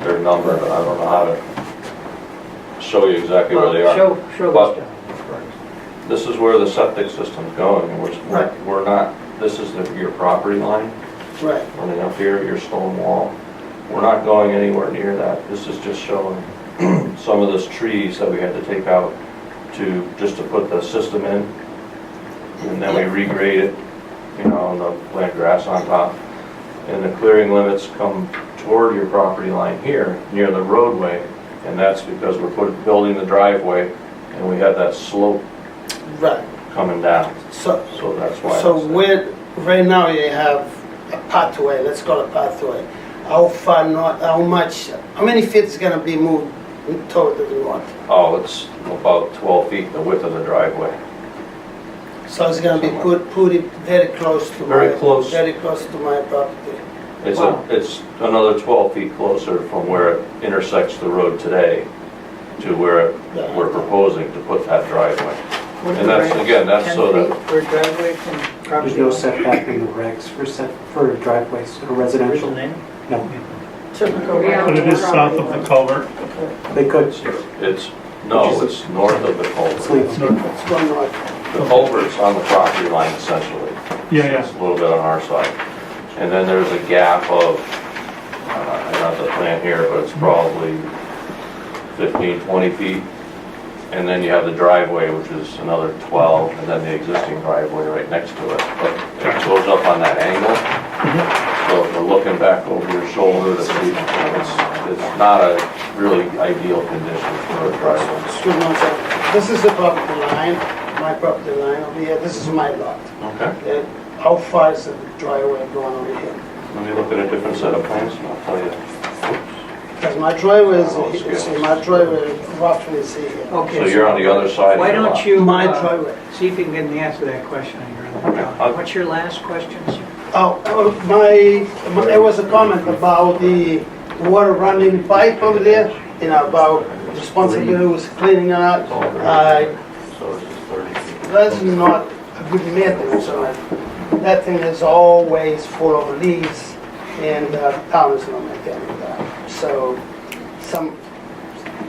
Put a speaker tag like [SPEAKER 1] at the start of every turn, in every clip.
[SPEAKER 1] number, I don't know how to show you exactly where they are.
[SPEAKER 2] Show, show
[SPEAKER 1] But-
[SPEAKER 2] the stuff.
[SPEAKER 1] This is where the septic system's going, and we're- we're,
[SPEAKER 2] Right.
[SPEAKER 1] we're not, this is the- your property line,
[SPEAKER 2] Right,
[SPEAKER 1] running up here, your stone wall. We're not going anywhere near that, this is just showing some of those trees that we had to take out to, just to put the system in. And then we regrade it, you know, and the plant grass on top. And the clearing limits come toward your property line here, near the roadway. And that's because we're putting, building the driveway, and we have that slope
[SPEAKER 3] Right,
[SPEAKER 1] coming down,
[SPEAKER 3] so,
[SPEAKER 1] so that's why.
[SPEAKER 3] so
[SPEAKER 1] it's there.
[SPEAKER 3] where, right now you have a pathway, let's call it pathway. How far north, how much, how many feet is gonna be moved toward the north?
[SPEAKER 1] Oh, it's about 12 feet, the width of the driveway.
[SPEAKER 3] So it's gonna be put, put it very close to my.
[SPEAKER 1] Very close.
[SPEAKER 3] Very close to my property.
[SPEAKER 1] It's,
[SPEAKER 2] Wow.
[SPEAKER 1] a it's another 12 feet closer from where it intersects the road today to where
[SPEAKER 3] Yeah.
[SPEAKER 1] we're proposing to put that driveway.
[SPEAKER 2] What's
[SPEAKER 1] And
[SPEAKER 2] the
[SPEAKER 1] that's,
[SPEAKER 2] range?
[SPEAKER 1] again, that's
[SPEAKER 2] Ten
[SPEAKER 1] so that-
[SPEAKER 2] feet for driveway from
[SPEAKER 4] There's
[SPEAKER 2] property.
[SPEAKER 4] no setback in the regs for set, for driveways or residential. No,
[SPEAKER 2] Typical.
[SPEAKER 5] Yeah.
[SPEAKER 6] But it is south of the culvert.
[SPEAKER 4] they could,
[SPEAKER 1] It's, it's- no, it's north of the
[SPEAKER 4] it's
[SPEAKER 1] culvert.
[SPEAKER 4] legal.
[SPEAKER 3] It's going north.
[SPEAKER 1] The culvert's on the property line essentially.
[SPEAKER 6] Yeah,
[SPEAKER 1] It's
[SPEAKER 6] yeah.
[SPEAKER 1] a little bit on our side. And then there's a gap of, uh, not the plan here, but it's probably 15, 20 feet. And then you have the driveway, which is another 12, and then the existing driveway right next to it. But it goes up on that angle. So if we're looking back over your shoulder, to see, it's, it's not a really ideal condition for a driveway.
[SPEAKER 3] It's good north side. This is the property line, my property line over here, this is my lot.
[SPEAKER 1] Okay,
[SPEAKER 3] Okay? How far is the driveway going over here?
[SPEAKER 1] let me look at a different set of plans and I'll tell you. Oops.
[SPEAKER 3] Because my driveway is,
[SPEAKER 1] Oh, it's good.
[SPEAKER 3] see, my driveway roughly is here.
[SPEAKER 2] Okay.
[SPEAKER 1] So you're on the other side of
[SPEAKER 2] Why
[SPEAKER 1] the
[SPEAKER 2] don't
[SPEAKER 1] lot.
[SPEAKER 2] you,
[SPEAKER 3] My
[SPEAKER 2] uh,
[SPEAKER 3] driveway.
[SPEAKER 2] see if you can get an answer to that question on your
[SPEAKER 1] Okay,
[SPEAKER 2] own.
[SPEAKER 1] I'll-
[SPEAKER 2] What's your last question, sir?
[SPEAKER 3] Oh, oh, my, my- there was a comment about the water running pipe over there, you know, about responsibility was cleaning it out. Uh,
[SPEAKER 1] So this is 30 feet.
[SPEAKER 3] That's not a good maintenance on it. That thing is always full of leaves and uh, town is not maintaining that. So some,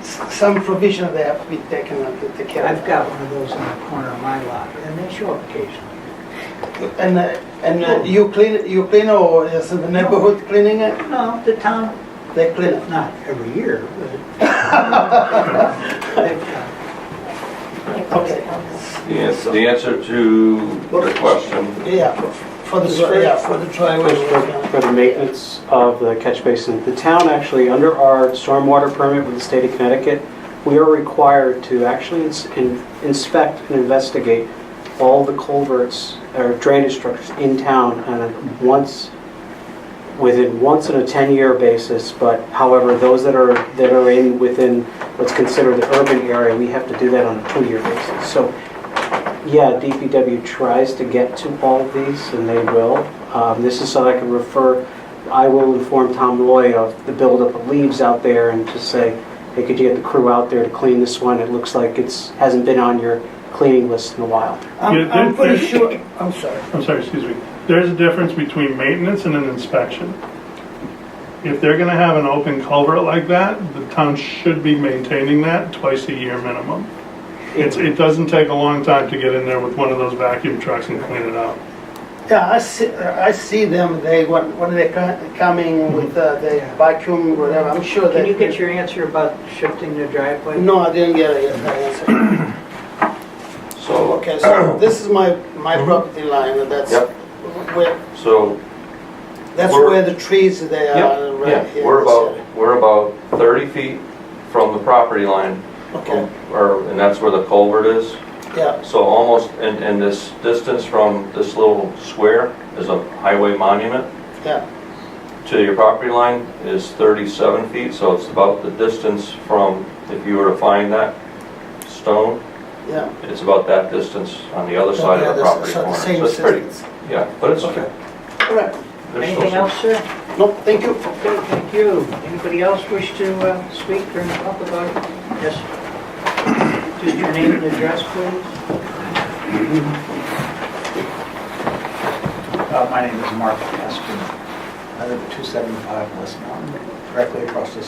[SPEAKER 3] some provision there have to be taken to take care of.
[SPEAKER 2] I've got one of those in the corner of my lot, and they show up occasionally.
[SPEAKER 3] And, uh, and uh, you clean, you clean or is the neighborhood cleaning it?
[SPEAKER 2] No, the town,
[SPEAKER 3] They clean it.
[SPEAKER 2] not every year, but. They've done.
[SPEAKER 3] Okay.
[SPEAKER 1] Yes, the answer to the question,
[SPEAKER 3] Yeah, for the, dri- yeah, for the driveway.
[SPEAKER 4] For- For the maintenance of the catch basin, the town actually, under our stormwater permit with the state of Connecticut, we are required to actually ins- in- inspect and investigate all the culverts or drainage structures in town on a once, within once in a 10-year basis, but however, those that are, that are in, within what's considered the urban area, we have to do that on a two-year basis. So yeah, DPW tries to get to all these, and they will. Um, This is so I can refer, I will inform Tom Loy of the buildup of leaves out there and just say, hey, could you get the crew out there to clean this one? It looks like it's, hasn't been on your cleaning list in a while.
[SPEAKER 3] I'm,
[SPEAKER 6] Yeah,
[SPEAKER 3] I'm
[SPEAKER 6] there-
[SPEAKER 3] pretty
[SPEAKER 6] there-
[SPEAKER 3] sure, I'm sorry.
[SPEAKER 6] I'm sorry, excuse me. There's a difference between maintenance and an inspection. If they're gonna have an open culvert like that, the town should be maintaining that twice a year minimum. It's, it doesn't take a long time to get in there with one of those vacuum trucks and clean it out.
[SPEAKER 3] Yeah, I see, I see them, they, when, when they co- coming with uh, the vacuum, whatever, I'm sure they.
[SPEAKER 2] Can you get your answer about shifting the driveway?
[SPEAKER 3] No, I didn't get it, the answer.
[SPEAKER 1] so,
[SPEAKER 3] Okay, so this is my, my property line, and that's
[SPEAKER 1] Yep.
[SPEAKER 3] where,
[SPEAKER 1] so,
[SPEAKER 3] that's
[SPEAKER 1] We're-
[SPEAKER 3] where the trees, they
[SPEAKER 1] yeah,
[SPEAKER 3] are right
[SPEAKER 1] yeah,
[SPEAKER 3] here.
[SPEAKER 1] we're
[SPEAKER 3] this area.
[SPEAKER 1] about, we're about 30 feet from the property line,
[SPEAKER 3] Okay,
[SPEAKER 1] or, and that's where the culvert is.
[SPEAKER 3] yeah,
[SPEAKER 1] So almost, and, and this distance from this little square is a highway monument
[SPEAKER 3] yeah,
[SPEAKER 1] to your property line is 37 feet, so it's about the distance from, if you were to find that stone,
[SPEAKER 3] yeah.
[SPEAKER 1] it's about that distance on the other side
[SPEAKER 3] Yeah,
[SPEAKER 1] of the property
[SPEAKER 3] that's- so the
[SPEAKER 1] corner.
[SPEAKER 3] same
[SPEAKER 1] So it's pretty,
[SPEAKER 3] distance.
[SPEAKER 1] yeah, but it's,
[SPEAKER 3] Okay.
[SPEAKER 1] okay.
[SPEAKER 3] All right,
[SPEAKER 2] Anything else, sir?
[SPEAKER 3] no, thank you.
[SPEAKER 2] Okay, thank you. Anybody else wish to uh, speak or talk about it? Yes. Just your name and address, please.
[SPEAKER 7] Uh, My name is Mark Askin. I live at 275 West Mountain, directly across the